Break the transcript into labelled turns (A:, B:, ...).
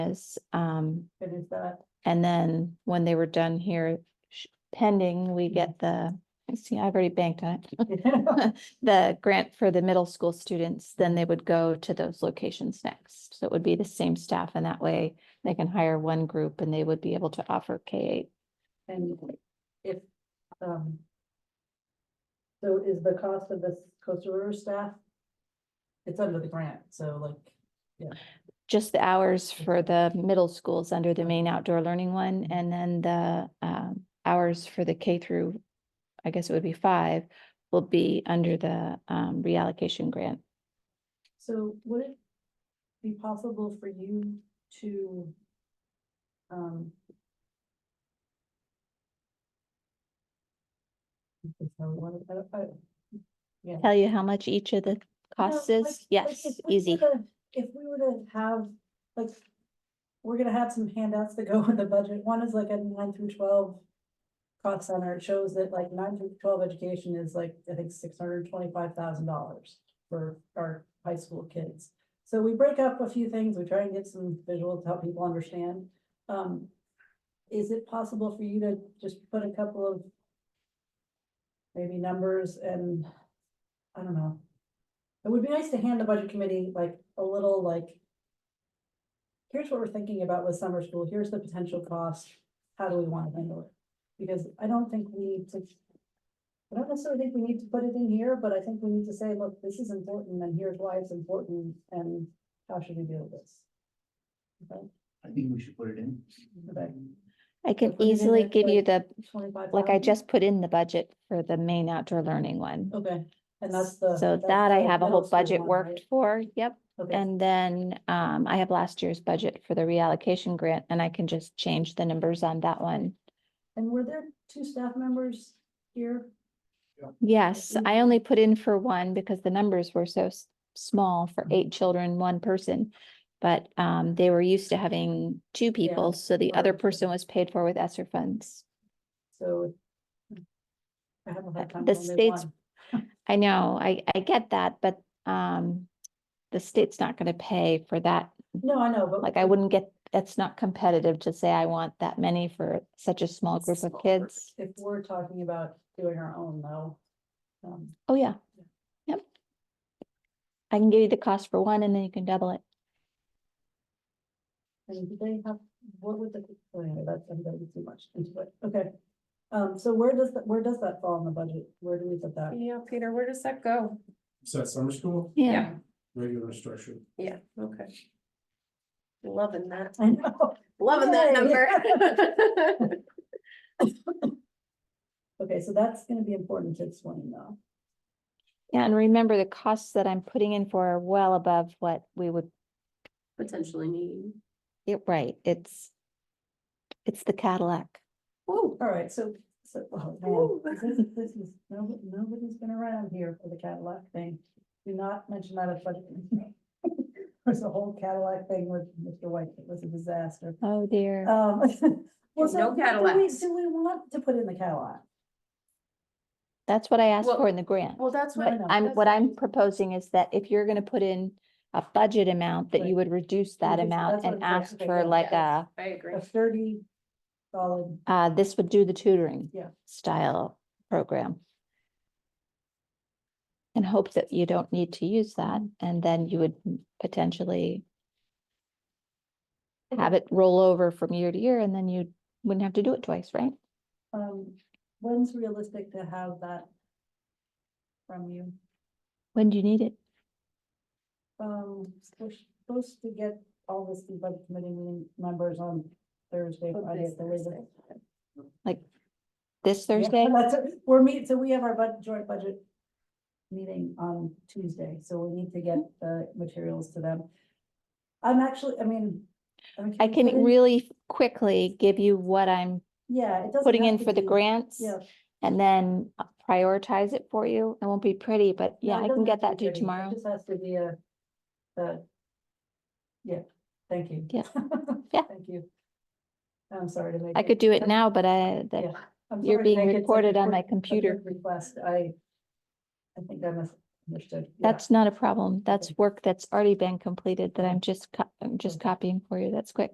A: is, um,
B: It is that.
A: and then when they were done here, sh- pending, we get the, see, I've already banked on it. The grant for the middle school students, then they would go to those locations next. So it would be the same staff and that way they can hire one group and they would be able to offer K eight.
B: And if, um. So is the cost of this Costa River staff? It's under the grant, so like,
A: Just the hours for the middle schools under the main outdoor learning one and then the, um, hours for the K through, I guess it would be five, will be under the, um, reallocation grant.
B: so would it be possible for you to? Um. if I wanted- I don't- I-
A: tell you how much each of the costs
B: No, like-
A: is?
B: like
A: Yes,
B: if we were
A: easy.
B: to- If we were to have, like, we're gonna have some handouts that go with the budget. One is like a nine through twelve cost center. It shows that like nine through twelve education is like, I think, six hundred twenty-five thousand dollars for our high school kids. So we break up a few things. We try and get some visuals to help people understand. Um, is it possible for you to just put a couple of maybe numbers and, I don't know, it would be nice to hand the budget committee like a little like. Here's what we're thinking about with summer school, here's the potential cost, how do we want to handle it? Because I don't think we need to. I don't necessarily think we need to put it in here, but I think we need to say, look, this is important and here's why it's important and how should we deal with this?
C: I think we should put it in.
B: Okay.
A: I can
B: If we did
A: easily
B: this,
A: give you
B: like,
A: the,
B: Twenty-five.
A: like I just put in the budget for the main outdoor learning one.
B: Okay, and that's the.
A: So
B: that's
A: that I
B: the
A: have a
B: middle
A: whole
B: school
A: budget
B: one,
A: worked
B: right?
A: for, yep.
B: Okay,
A: And then um, I have last year's budget for the reallocation grant and I can just change the numbers on that one.
B: and were there two staff members here?
A: Yes,
B: Mm.
A: I only put in for one because the numbers were so s- small for
B: Mm-hmm.
A: eight children, one person. But um, they were used to having two people, so the other
B: or-
A: person was paid for with ESSER funds.
B: So. I have a hard
A: Uh,
B: time.
A: the
B: with only
A: state's
B: one.
A: I know, I, I get that, but, um, the state's not gonna pay for that.
B: No, I know, but.
A: Like, I wouldn't get, that's not competitive to say I want that many for such a small group of
C: Small group.
A: kids.
B: If we're talking about doing our own though. um,
A: Oh, yeah. Yep. I can give you the cost for one and then you can double it.
B: And do they have, what would the, oh, anyway, that's, I'm getting too much into it, okay. Um, so where does, that where does that fall in the budget? Where do we put that?
D: Yeah, Peter, where does that go?
E: Is that summer school?
D: Yeah.
E: Regular structure.
D: Yeah, okay. Loving that,
B: I know,
D: loving
B: Yay.
D: that number.
B: okay, so that's gonna be important to explain though.
A: Yeah, and remember the costs that I'm putting in for are well above what we would,
D: Potentially needing.
A: it, right, it's, it's the Cadillac.
D: Whoa.
B: All right, so, so, oh,
D: Ooh.
B: man, this is, this is, no, nobody's been around here for the Cadillac thing. Do not mention that at budget. meeting. There's a whole Cadillac thing with Mr. White, it was a disaster.
A: Oh, dear.
B: Um. well,
D: There's
B: so
D: no
B: do we-
D: Cadillacs.
B: Do we want to put in the Cadillac?
A: That's what I asked
D: Well-
A: for in the grant.
D: Well, that's
B: No,
D: what.
B: no.
A: I'm,
D: that's
A: what I'm proposing is that if you're gonna put in a budget amount, that you would reduce that
B: Reduce-
A: amount
B: that's what
A: and
B: I'm saying.
A: ask
B: Okay,
A: for
B: yeah,
A: like uh,
D: yeah.
A: a,
D: I agree.
B: A thirty solid,
A: uh, this would do the tutoring.
B: Yeah.
A: Style program. And hope that you don't need to use that, and then you would m- potentially have it roll over from year to year, and then you wouldn't have to do it twice, right?
B: um, when's realistic to have that? From you,
A: When do you need it?
B: um, we're supposed to get all this to budget committee meeting members on Thursday,
D: Oh,
B: Friday,
D: this
B: at the latest.
D: Thursday.
A: This
B: Yeah,
A: Thursday?
B: that's it. We're meet, so we have our bud, joint budget meeting on Tuesday, so we need to get the materials to them. I'm actually, I mean. mean,
A: I
B: we put
A: can
B: in-
A: really quickly give you what I'm
B: Yeah, it doesn't.
A: putting
B: have
A: in
B: to
A: for the
B: be-
A: grants.
B: Yeah.
A: And then uh, prioritize it for you. It won't be pretty, but
B: No,
A: yeah,
B: it
A: I can
B: doesn't have
A: get that
B: be
A: to you
B: pretty. It
A: tomorrow.
B: Just has to be a, a, yeah, thank you.
A: Yeah. Yeah.
B: Thank you. I'm sorry to make.
A: I
B: it-
A: could do it now, but I, that-
B: Yeah. I'm
A: you're
B: sorry to
A: being
B: make it such a
A: recorded on my
B: quick- a quick
A: computer.
B: Request, I, I think I misunderstood. Yeah.
A: that's not a problem. That's
B: Okay.
A: work that's already been completed that
B: Yeah.
A: I'm just, co- I'm just copying for you. That's quick.